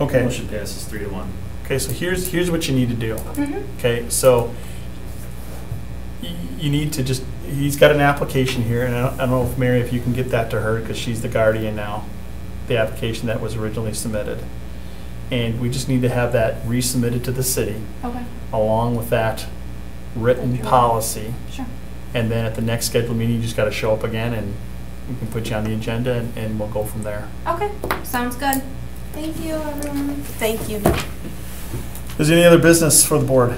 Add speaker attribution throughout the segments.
Speaker 1: Okay,
Speaker 2: Motion passes three to one.
Speaker 1: okay, so here's, here's what you need to do.
Speaker 3: Mhm.
Speaker 1: Okay, so y- you need to just, he's got an application here, and I don't- I don't know if Mary, if you can get that to her, because she's the guardian now, the application that was originally submitted. And we just need to have that resubmitted to the city,
Speaker 3: Okay,
Speaker 1: along with that written
Speaker 3: Okay.
Speaker 1: policy.
Speaker 3: sure.
Speaker 1: And then at the next scheduled meeting, you just gotta show up again, and we can put you on the agenda, and- and we'll go from there.
Speaker 3: Okay, sounds good. Thank you, everyone. Thank you.
Speaker 1: Is there any other business for the board?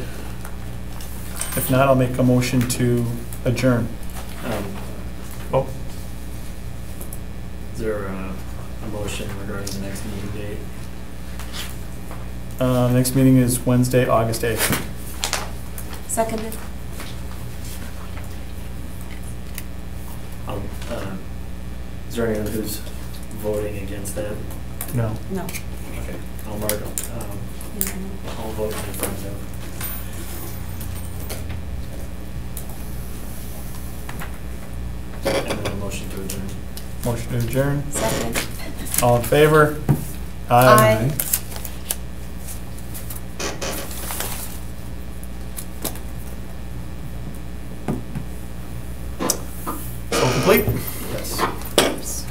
Speaker 1: If not, I'll make a motion to adjourn.
Speaker 2: Um,
Speaker 1: Oh.
Speaker 2: Is there a, a motion regarding the next meeting date?
Speaker 1: Uh, Next meeting is Wednesday, August 8th.
Speaker 3: Seconded.
Speaker 2: Um, uh, Is there anyone who's voting against that?
Speaker 1: No.
Speaker 3: No.
Speaker 2: Okay, I'll mark, um, I'll vote in front of. And then a motion to adjourn.
Speaker 1: Motion to adjourn.
Speaker 3: Seconded.
Speaker 1: All in favor?
Speaker 3: Aye.
Speaker 1: So complete.
Speaker 2: Yes.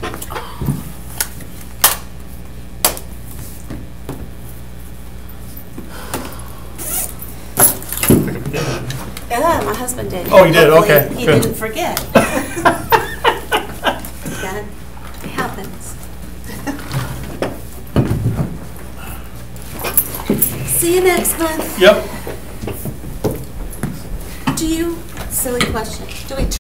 Speaker 3: Yeah, my husband did.
Speaker 1: Oh, you did?
Speaker 3: Hopefully
Speaker 1: Okay,
Speaker 3: He
Speaker 1: good.
Speaker 3: didn't forget. That happens. See you next month.
Speaker 1: Yep.
Speaker 3: Do you, silly question, do we